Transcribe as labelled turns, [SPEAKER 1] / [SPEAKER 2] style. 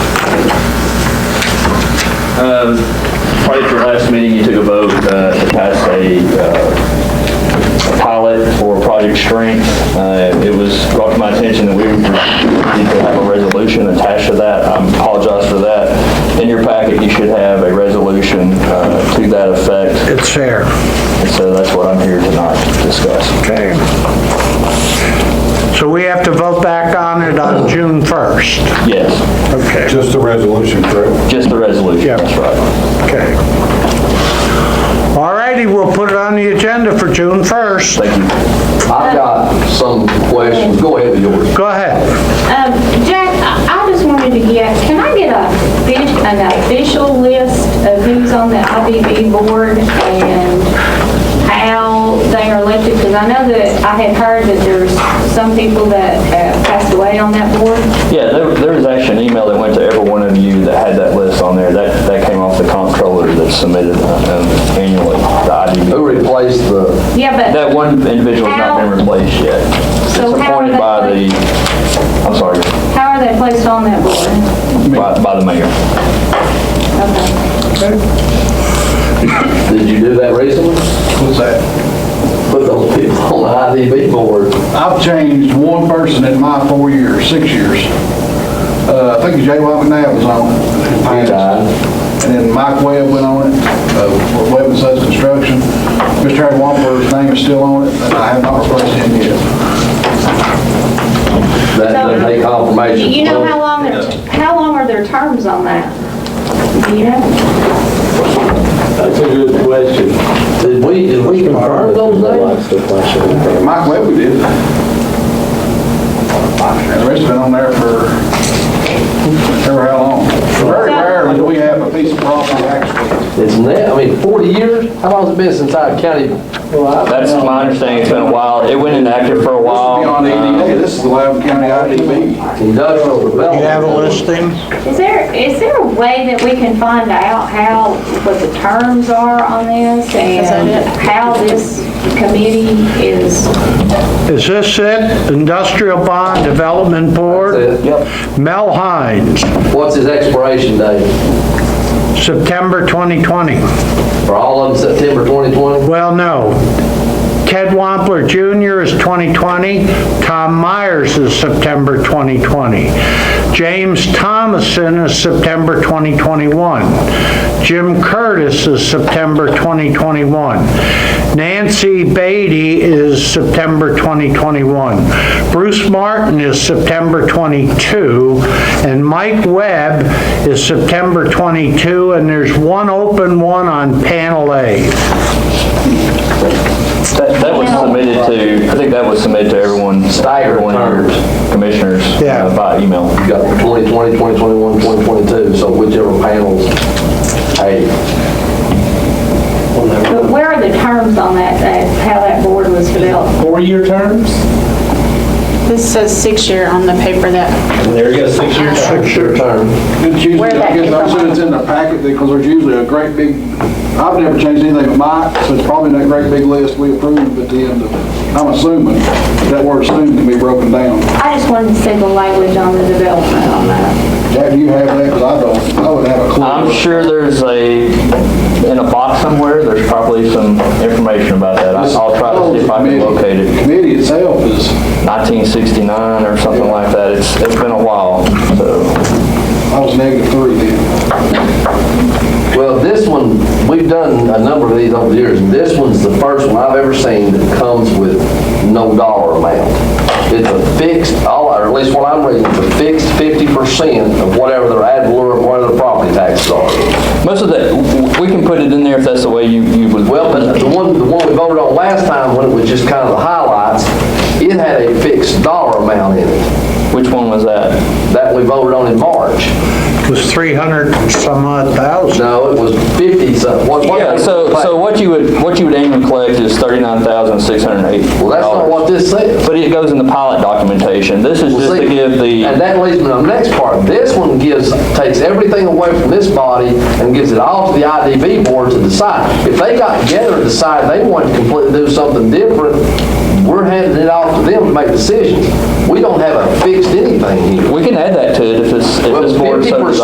[SPEAKER 1] um, probably at your last meeting, you took a vote uh, to pass a uh, a pilot for Project Strength. Uh, It was brought to my attention that we need to have a resolution attached to that. I apologize for that. In your packet, you should have a resolution uh, to that effect,
[SPEAKER 2] It's fair.
[SPEAKER 1] and so that's what I'm here tonight to discuss.
[SPEAKER 2] Okay. So we have to vote back on it on June 1st.
[SPEAKER 1] Yes,
[SPEAKER 2] Oh. Okay,
[SPEAKER 3] Just a resolution, correct?
[SPEAKER 1] just the resolution,
[SPEAKER 2] Yeah.
[SPEAKER 1] that's right.
[SPEAKER 2] okay. All righty, we'll put it on the agenda for June 1st.
[SPEAKER 1] Thank you.
[SPEAKER 4] I've got some questions. Go ahead with yours.
[SPEAKER 2] Go ahead.
[SPEAKER 5] Um, Jack, I I just wanted to get, can I get a, fi- an official list of who's on the IBB board and how they are elected? Because I know that I had heard that there's some people that uh, passed away on that board.
[SPEAKER 1] Yeah, there, there was actually an email that went to every one of you that had that list on there. That, that came off the comptroller that submitted um, annually, the IDB.
[SPEAKER 4] Who replaced the,
[SPEAKER 5] Yeah, but,
[SPEAKER 1] That one individual has not been replaced yet. It's
[SPEAKER 5] So how are
[SPEAKER 1] appointed
[SPEAKER 5] they
[SPEAKER 1] by the,
[SPEAKER 5] placed?
[SPEAKER 1] I'm sorry,
[SPEAKER 5] how are they placed on that board?
[SPEAKER 1] by, by the mayor.
[SPEAKER 5] Okay.
[SPEAKER 4] did you do that recently?
[SPEAKER 6] What's that?
[SPEAKER 4] Put those people on the IDB board.
[SPEAKER 6] I've changed one person in my four years, six years. Uh, I think Jay White McNabb was on it.
[SPEAKER 4] He died.
[SPEAKER 6] And then Mike Webb went on it, uh, for Webb and Sons Construction. Mr. Harry Wampler's name is still on it, and I have not replaced him yet.
[SPEAKER 4] That doesn't take
[SPEAKER 5] Do
[SPEAKER 4] confirmation.
[SPEAKER 5] you know how long, their- how long are their terms on that? Do you know?
[SPEAKER 7] That's a good question.
[SPEAKER 4] Did we, did we confirm those names?
[SPEAKER 6] Mike Webb we did. And the rest have been on there for, never how long. Very rarely do we have a piece of property actually.
[SPEAKER 4] It's net, I mean, 40 years? How long has it been since I county?
[SPEAKER 1] That's my understanding, it's been a while. It went inactive for a while.
[SPEAKER 6] Beyond E
[SPEAKER 1] Um,
[SPEAKER 6] EDA, uh, this is the Loudoun County IDB.
[SPEAKER 4] Industrial
[SPEAKER 2] You
[SPEAKER 4] development.
[SPEAKER 2] have a listing?
[SPEAKER 5] Is there, is there a way that we can find out how, what the terms are on this and how this committee is?
[SPEAKER 2] Is this it? Industrial Bond Development Board?
[SPEAKER 4] That's it.
[SPEAKER 2] Mel Hines,
[SPEAKER 4] Uh, What's his expiration date?
[SPEAKER 2] September 2020.
[SPEAKER 4] For all of them, September 2020?
[SPEAKER 2] Well, no. Ted Wampler Jr. is 2020. Tom Myers is September 2020. James Thomason is September 2021. Jim Curtis is September 2021. Nancy Beatty is September 2021. Bruce Martin is September 22. And Mike Webb is September 22. And there's one open one on Panel A.
[SPEAKER 1] That, that was submitted to, I think that was submitted to everyone.
[SPEAKER 4] Staggered
[SPEAKER 1] everyone of your Commissioners uh,
[SPEAKER 2] Yeah.
[SPEAKER 1] by email.
[SPEAKER 4] You got 2020, 2021, 2022, so whichever panels, hey.
[SPEAKER 5] But where are the terms on that, that- how that board was developed?
[SPEAKER 8] Four-year terms?
[SPEAKER 9] This says six-year on the paper that,
[SPEAKER 8] There you go, six-year term.
[SPEAKER 4] Sure. Term.
[SPEAKER 6] It's usually,
[SPEAKER 5] Where that
[SPEAKER 6] I guess,
[SPEAKER 5] came
[SPEAKER 6] I
[SPEAKER 5] from.
[SPEAKER 6] said it's in the packet because there's usually a great big, I've never changed anything but mine, so it's probably that great big list we approved at the end of, I'm assuming, that word assumed can be broken down.
[SPEAKER 5] I just wanted to see the language on the development on that.
[SPEAKER 6] Jack, do you have that? Because I don't, I would have a clue.
[SPEAKER 1] I'm sure there's a, in a box somewhere, there's probably some information about that. I- I'll try to see if I can locate
[SPEAKER 6] The
[SPEAKER 1] it.
[SPEAKER 6] Committee itself is,
[SPEAKER 1] 1969 or something like that. It's, it's been a while, so.
[SPEAKER 6] I was negative three then.
[SPEAKER 4] Well, this one, we've done a number of these over the years, and this one's the first one I've ever seen that comes with no dollar amount. It's a fixed, all, or at least what I'm reading, it's a fixed fifty percent of whatever their ad valorem, whatever their property taxes are.
[SPEAKER 1] Most of that, we can put it in there if that's the way you, you would.
[SPEAKER 4] Well, but the one, the one we voted on last time, when it was just kind of the highlights, it had a fixed dollar amount in it,
[SPEAKER 1] Which one was that?
[SPEAKER 4] that we voted on in March.
[SPEAKER 2] was 300 and some odd thousand.
[SPEAKER 4] No, it was fifty something, what? what-
[SPEAKER 1] Yeah, so, so what you would, what you would aim to collect is $39,608.
[SPEAKER 4] Well, that's not what this says.
[SPEAKER 1] But it goes in the pilot documentation. This is just to give the.
[SPEAKER 4] And that leads me to the next part. This one gives, takes everything away from this body and gives it all to the IDB board to decide. If they got together and decided they wanted to completely do something different, we're handing it off to them to make decisions. We don't have a fixed anything here.
[SPEAKER 1] We can add that to it if this, if this board so
[SPEAKER 4] Well, 50%